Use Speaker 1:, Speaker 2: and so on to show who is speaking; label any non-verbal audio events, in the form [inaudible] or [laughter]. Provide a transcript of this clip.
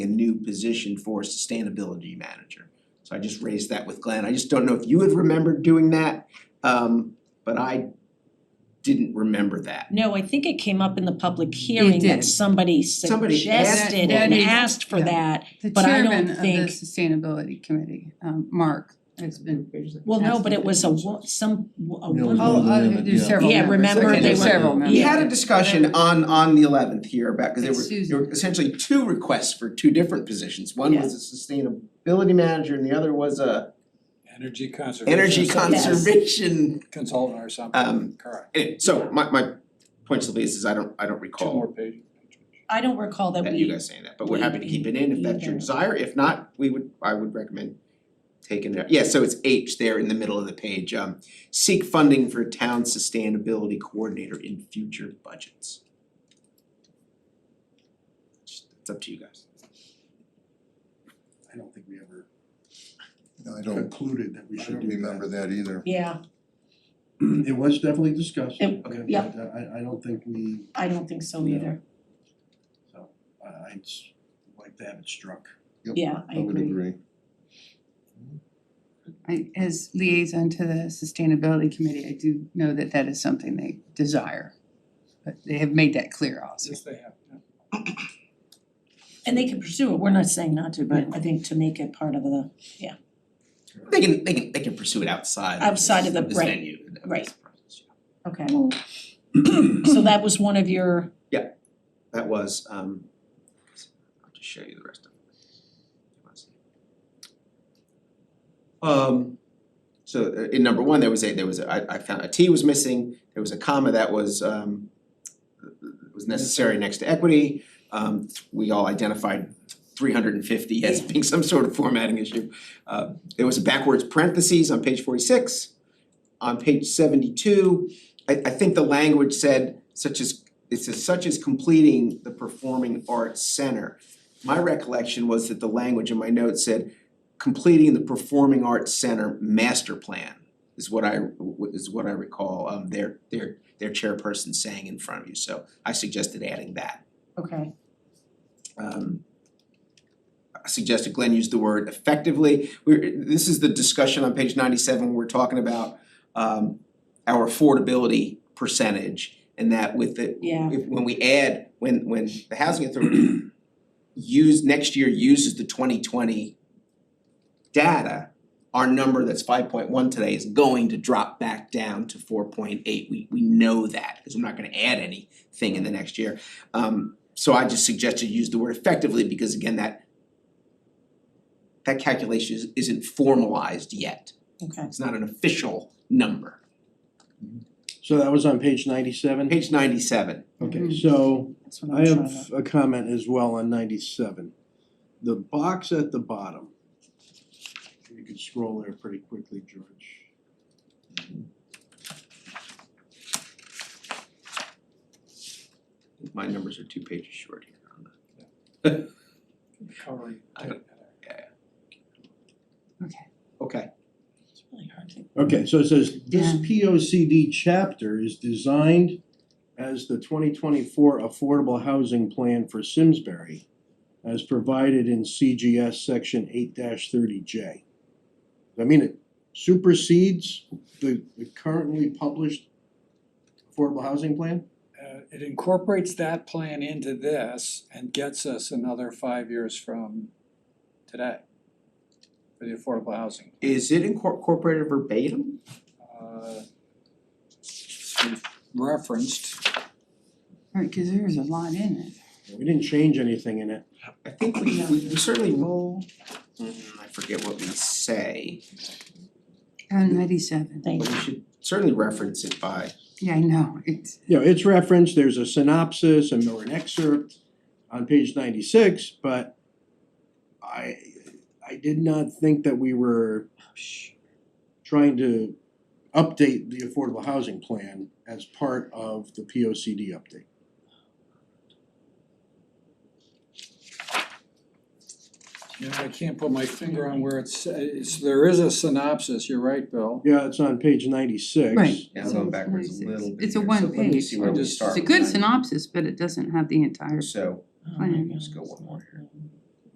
Speaker 1: position for sustainability manager. So I just raised that with Glenn, I just don't know if you had remembered doing that, um but I didn't remember that.
Speaker 2: No, I think it came up in the public hearing
Speaker 3: did.
Speaker 2: that somebody
Speaker 1: Somebody
Speaker 2: suggested and
Speaker 3: asked for it.
Speaker 2: asked for
Speaker 3: Yeah.
Speaker 2: that.
Speaker 3: The
Speaker 2: But I don't
Speaker 3: chairman of the
Speaker 2: think-
Speaker 3: sustainability committee, um, Mark, has been.
Speaker 2: Well, no,
Speaker 3: asked
Speaker 2: but
Speaker 3: to
Speaker 2: it
Speaker 3: do
Speaker 2: was a
Speaker 3: it.
Speaker 2: wo- some, a
Speaker 4: No,
Speaker 2: woman.
Speaker 4: no,
Speaker 3: Oh,
Speaker 4: no,
Speaker 3: uh,
Speaker 4: no, no,
Speaker 3: there's
Speaker 4: yeah.
Speaker 3: several
Speaker 2: Yeah,
Speaker 3: members.
Speaker 2: remember,
Speaker 3: Okay,
Speaker 2: they
Speaker 3: there's
Speaker 2: were-
Speaker 3: several
Speaker 2: yeah.
Speaker 3: members.
Speaker 1: We had a discussion on on the eleventh here about, cause there
Speaker 3: It's
Speaker 1: were, there were
Speaker 3: Susan.
Speaker 1: essentially two requests for two different positions. One
Speaker 2: Yeah.
Speaker 1: was a sustainability manager and the other was a
Speaker 5: Energy conservation.
Speaker 1: energy
Speaker 2: Yes.
Speaker 1: conservation.
Speaker 5: Consultant or
Speaker 1: Um,
Speaker 5: something, correct.
Speaker 1: Anyway, so my my point simply is, is I don't, I don't
Speaker 5: Two
Speaker 1: recall
Speaker 5: more pages.
Speaker 2: I don't recall that
Speaker 1: that you
Speaker 2: we,
Speaker 1: guys saying that, but we're happy to keep it in if that's your
Speaker 2: Either.
Speaker 1: desire. If not, we would, I would recommend taking that. Yeah, so it's H there in the middle of the page, um, seek funding for town sustainability coordinator in future budgets. Just- It's up to you guys.
Speaker 6: I don't think we ever
Speaker 4: No, I don't,
Speaker 6: concluded that we
Speaker 4: I
Speaker 6: should
Speaker 4: don't
Speaker 6: do
Speaker 4: remember
Speaker 6: that.
Speaker 4: that either.
Speaker 2: yeah,
Speaker 6: It was definitely discussed,
Speaker 2: It-
Speaker 6: but
Speaker 2: yeah.
Speaker 6: uh, I I don't think we,
Speaker 2: I don't think so
Speaker 6: No.
Speaker 2: either.
Speaker 6: so I I'd s- like to have it struck.
Speaker 4: Yep,
Speaker 2: Yeah, I
Speaker 4: I would
Speaker 2: agree.
Speaker 4: agree.
Speaker 3: I, as liaison to the sustainability committee, I do know that that is something they desire. But they have made that clear also.
Speaker 5: Yes, they have, yeah.
Speaker 2: And they can pursue it, we're not saying not to, but I think to make it part of the,
Speaker 1: They can, they can, they can pursue it outside of this,
Speaker 2: Outside of the-
Speaker 1: this
Speaker 2: right,
Speaker 1: venue, of this
Speaker 2: right.
Speaker 1: process, yeah.
Speaker 2: okay. [clears throat] So that was one of your,
Speaker 1: That was, um, I'll just show you the rest of it. Um, so uh, in number one, there was a, there was a, I I found a T was missing, there was a comma that was, um, was necessary next to equity. Um, th- we all identified three hundred and fifty as being some sort of formatting issue. Uh, there was a backwards parentheses on page forty-six. On page seventy-two, I I think the language said such as, it says such as completing the Performing Arts Center. My recollection was that the language in my notes said completing the Performing Arts Center master plan is what I is what I recall um their their their chairperson saying in front of you, so I suggested adding that.
Speaker 2: okay,
Speaker 1: Um I suggested Glenn use the word effectively. We're this is the discussion on page ninety seven, we're talking about um our affordability percentage and that with the
Speaker 2: yeah,
Speaker 1: if when we add, when when the housing authority use, next year uses the twenty twenty data, our number that's five point one today is going to drop back down to four point eight. We we know that, because we're not gonna add anything in the next year. Um so I just suggested use the word effectively because again, that that calculation is- isn't formalized yet.
Speaker 2: okay.
Speaker 1: It's not an official number.
Speaker 6: So that was on page ninety-seven?
Speaker 1: Page ninety seven.
Speaker 6: Okay,
Speaker 3: Mhm.
Speaker 6: so
Speaker 2: That's what
Speaker 6: I
Speaker 2: I'm trying to.
Speaker 6: have a comment as well on ninety-seven. The box at the bottom, you could scroll there pretty quickly, George.
Speaker 1: My numbers are two pages short here on the
Speaker 5: Covering.
Speaker 1: I don't- Okay.
Speaker 2: It's really hard to-
Speaker 6: Okay, so it says, this
Speaker 3: Yeah.
Speaker 6: P O C D chapter is designed as the twenty twenty-four Affordable Housing Plan for Simsbury as provided in CGS section eight thirty J. I mean, it supersedes the the currently published Affordable Housing Plan?
Speaker 5: Uh, it incorporates that plan into this and gets us another five years from today for the affordable housing.
Speaker 1: Is it incor- incorporated verbatim?
Speaker 5: Uh, we've Referenced,
Speaker 3: Right, cause there's a lot in it.
Speaker 6: We didn't change anything in it.
Speaker 1: I think we we we certainly roll. Mm, I forget what we say,
Speaker 3: On ninety-seven,
Speaker 1: but
Speaker 2: Thank
Speaker 1: we
Speaker 2: you.
Speaker 1: should certainly reference it by,
Speaker 3: yeah, I know, it's,
Speaker 6: You know, it's referenced, there's a synopsis and or an excerpt on page ninety-six, but I, I did not think that we were trying to update the affordable housing plan as part of the P O C D update.
Speaker 5: you know, I can't put my finger on where it's, it's, there is a synopsis, you're right, Bill.
Speaker 6: Yeah, it's on page ninety-six.
Speaker 3: Right.
Speaker 1: yeah, I'm going backwards a little bit
Speaker 3: It's a
Speaker 1: here, so
Speaker 3: one
Speaker 1: let me
Speaker 3: page.
Speaker 1: see where we
Speaker 5: Just-
Speaker 1: start
Speaker 3: it's a
Speaker 1: with
Speaker 3: good
Speaker 1: that.
Speaker 3: synopsis, but it doesn't have the entire
Speaker 1: So,
Speaker 2: Oh my
Speaker 3: Fine.
Speaker 2: God,
Speaker 1: Just go
Speaker 2: it's
Speaker 1: one
Speaker 2: not
Speaker 1: more
Speaker 2: good.